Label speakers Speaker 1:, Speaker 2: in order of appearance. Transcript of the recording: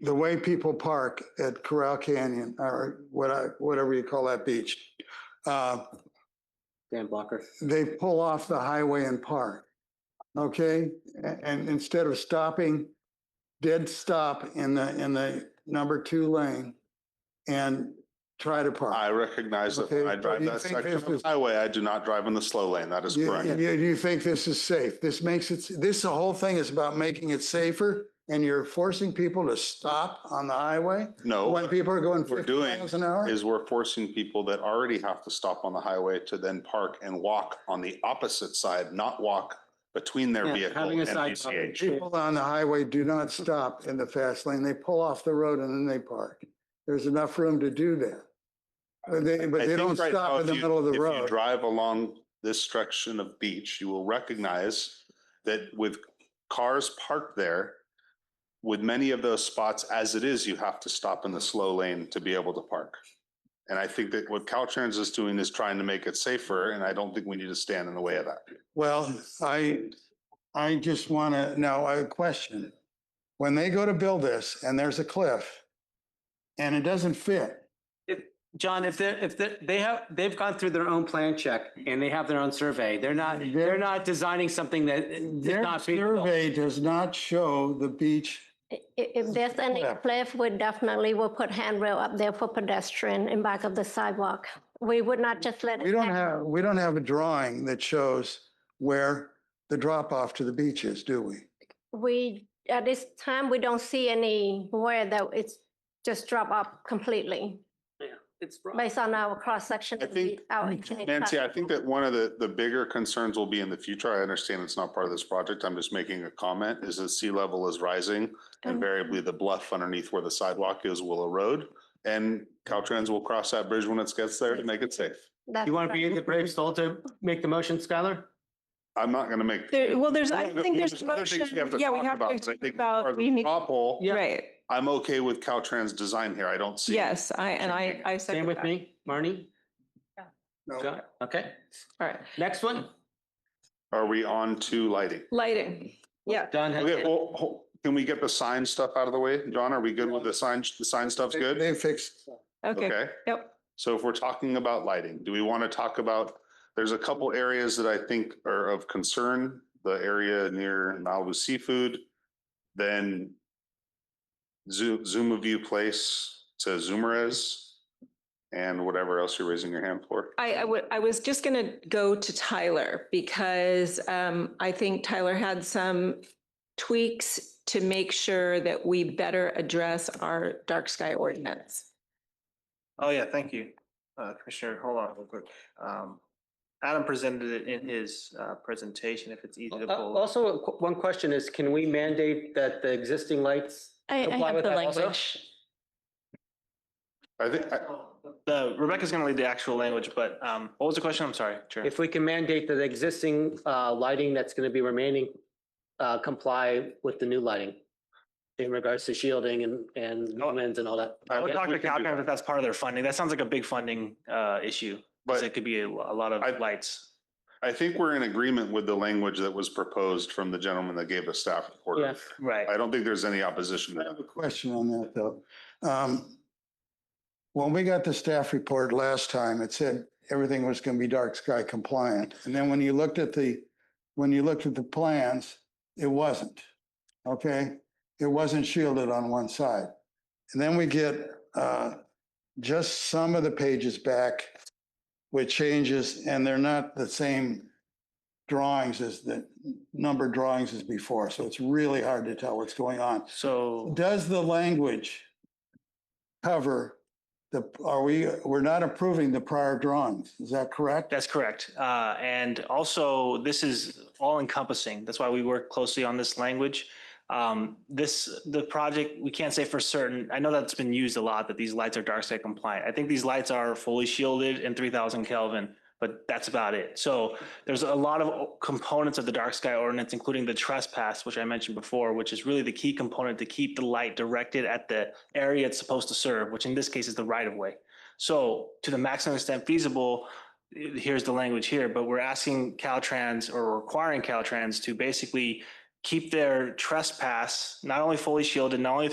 Speaker 1: the way people park at Corral Canyon or what I, whatever you call that beach. Uh,
Speaker 2: Dan Blocker.
Speaker 1: they pull off the highway and park. Okay, A- and instead of stopping, dead stop in the, in the number two lane and try to park.
Speaker 3: I recognize that
Speaker 1: Okay,
Speaker 3: when I
Speaker 1: but
Speaker 3: drive
Speaker 1: you
Speaker 3: that
Speaker 1: think
Speaker 3: section
Speaker 1: this
Speaker 3: of the
Speaker 1: is-
Speaker 3: highway, I do not drive in the slow lane. That is
Speaker 1: You,
Speaker 3: correct.
Speaker 1: you- you think this is safe? This makes it, this, the whole thing is about making it safer and you're forcing people to stop on the highway?
Speaker 3: No,
Speaker 1: When
Speaker 3: what
Speaker 1: people are going
Speaker 3: Oh, we're
Speaker 1: fifty
Speaker 3: doing
Speaker 1: miles an hour?
Speaker 3: is we're forcing people that already have to stop on the highway to then park and walk on the opposite side, not walk between their
Speaker 2: Yeah,
Speaker 3: vehicle
Speaker 2: having a
Speaker 3: and
Speaker 2: sidewalk.
Speaker 3: PCH.
Speaker 1: People on the highway do not stop in the fast lane. They pull off the road and then they park. There's enough room to do that. But they, but
Speaker 3: I
Speaker 1: they
Speaker 3: think
Speaker 1: don't
Speaker 3: right now,
Speaker 1: stop in
Speaker 3: if
Speaker 1: the
Speaker 3: you-
Speaker 1: middle of the
Speaker 3: If you
Speaker 1: road.
Speaker 3: drive along this section of beach, you will recognize that with cars parked there, with many of those spots, as it is, you have to stop in the slow lane to be able to park. And I think that what Caltrans is doing is trying to make it safer, and I don't think we need to stand in the way of that.
Speaker 1: Well, I, I just want to, now a question. When they go to build this and there's a cliff and it doesn't fit,
Speaker 2: John, if they're, if they're, they have, they've gone through their own plan check and they have their own survey. They're not, they're not designing something that is
Speaker 1: their
Speaker 2: not. feasible.
Speaker 1: survey does not show the beach.
Speaker 4: I- i- If there's any
Speaker 1: Yeah.
Speaker 4: cliff, we definitely will put handrail up there for pedestrian in back of the sidewalk. We would not just let.
Speaker 1: We
Speaker 4: it
Speaker 1: don't
Speaker 4: hang.
Speaker 1: have, we don't have a drawing that shows where the drop off to the beach is, do we?
Speaker 4: We, at this time, we don't see anywhere that it's just drop up completely
Speaker 2: It's rough.
Speaker 4: based on our cross section.
Speaker 3: I think- Nancy, I think that one of the, the bigger concerns will be in the future. I understand it's not part of this project. I'm just making a comment, is that sea level is rising. Invariably, the bluff underneath where the sidewalk is will erode and Caltrans will cross that bridge when it gets there to make it safe.
Speaker 2: You want to be in the brave soul to make the motion, Skylar?
Speaker 3: I'm not gonna make.
Speaker 5: There, well, there's, I
Speaker 3: Well,
Speaker 5: think there's
Speaker 3: there's other things
Speaker 5: motion.
Speaker 3: we have to
Speaker 5: Yeah, we
Speaker 3: talk
Speaker 5: have
Speaker 3: about,
Speaker 5: to
Speaker 3: 'cause I
Speaker 5: talk
Speaker 3: think
Speaker 5: about, we need,
Speaker 3: Top hole,
Speaker 2: Yeah.
Speaker 5: right.
Speaker 3: I'm okay with Caltrans design here. I don't see.
Speaker 5: Yes, I, and I, I
Speaker 2: Stand
Speaker 5: second
Speaker 2: with
Speaker 5: that. All
Speaker 2: me, Marnie?
Speaker 1: No.
Speaker 2: John? Okay,
Speaker 5: right,
Speaker 2: next one.
Speaker 3: Are we on to lighting?
Speaker 5: lighting. Yeah,
Speaker 2: John, has-
Speaker 3: Okay, well, ho- can we get the sign stuff out of the way? John, are we good with the sign? The sign stuff's good?
Speaker 1: They fixed.
Speaker 5: okay,
Speaker 3: Okay.
Speaker 5: yep.
Speaker 3: So if we're talking about lighting, do we want to talk about, there's a couple areas that I think are of concern, the area near Malibu Seafood, then Zoom, Zuma View Place to Zumarez, and whatever else you're raising your hand for.
Speaker 5: I, I would, I was just gonna go to Tyler because, um, I think Tyler had some tweaks to make sure that we better address our dark sky ordinance.
Speaker 6: Oh, yeah, thank you, uh, Commissioner. Hold on real quick. Um, Adam presented it in his, uh, presentation, if it's easy to
Speaker 2: Uh,
Speaker 6: pull.
Speaker 2: also, a qu- one question is, can we mandate that the existing lights?
Speaker 7: I, I
Speaker 2: comply
Speaker 7: have
Speaker 2: with
Speaker 7: the
Speaker 2: that also?
Speaker 7: language.
Speaker 3: I think, I-
Speaker 6: The Rebecca's gonna lead the actual language, but, um, what was the question? I'm sorry, Chair.
Speaker 2: If we can mandate that the existing uh, lighting that's going to be remaining uh, comply with the new lighting in regards to shielding and, and lumens and all that.
Speaker 6: I would talk
Speaker 3: we
Speaker 6: to
Speaker 3: can do
Speaker 6: Caltrans Oh, if that's part of their funding. That sounds like a big funding, uh, issue. Cause
Speaker 3: But-
Speaker 6: it could be a, a lot
Speaker 3: I-
Speaker 6: of lights.
Speaker 3: I think we're in agreement with the language that was proposed from the gentleman that gave us staff
Speaker 2: Yeah.
Speaker 3: report.
Speaker 6: Right.
Speaker 3: I don't think there's any
Speaker 1: I
Speaker 3: opposition to that.
Speaker 1: have a question on that though. Um, when we got the staff report last time, it said everything was going to be dark sky compliant. And then when you looked at the, when you looked at the plans, it wasn't. Okay? It wasn't shielded on one side. And then we get, uh, just some of the pages back with changes and they're not the same drawings as the number drawings as before. So it's really hard to tell what's going on.
Speaker 6: So,
Speaker 1: Does the language cover the, are we, we're not approving the prior drawings, is that correct?
Speaker 6: that's correct. Uh, and also this is all encompassing. That's why we work closely on this language. Um, this, the project, we can't say for certain, I know that's been used a lot, that these lights are dark side compliant. I think these lights are fully shielded in three thousand Kelvin, but that's about it. So there's a lot of components of the dark sky ordinance, including the trespass, which I mentioned before, which is really the key component to keep the light directed at the area it's supposed to serve, which in this case is the right of way. So to the maximum extent feasible, eh, here's the language here, but we're asking Caltrans or requiring Caltrans to basically keep their trespass not only fully shielded, not only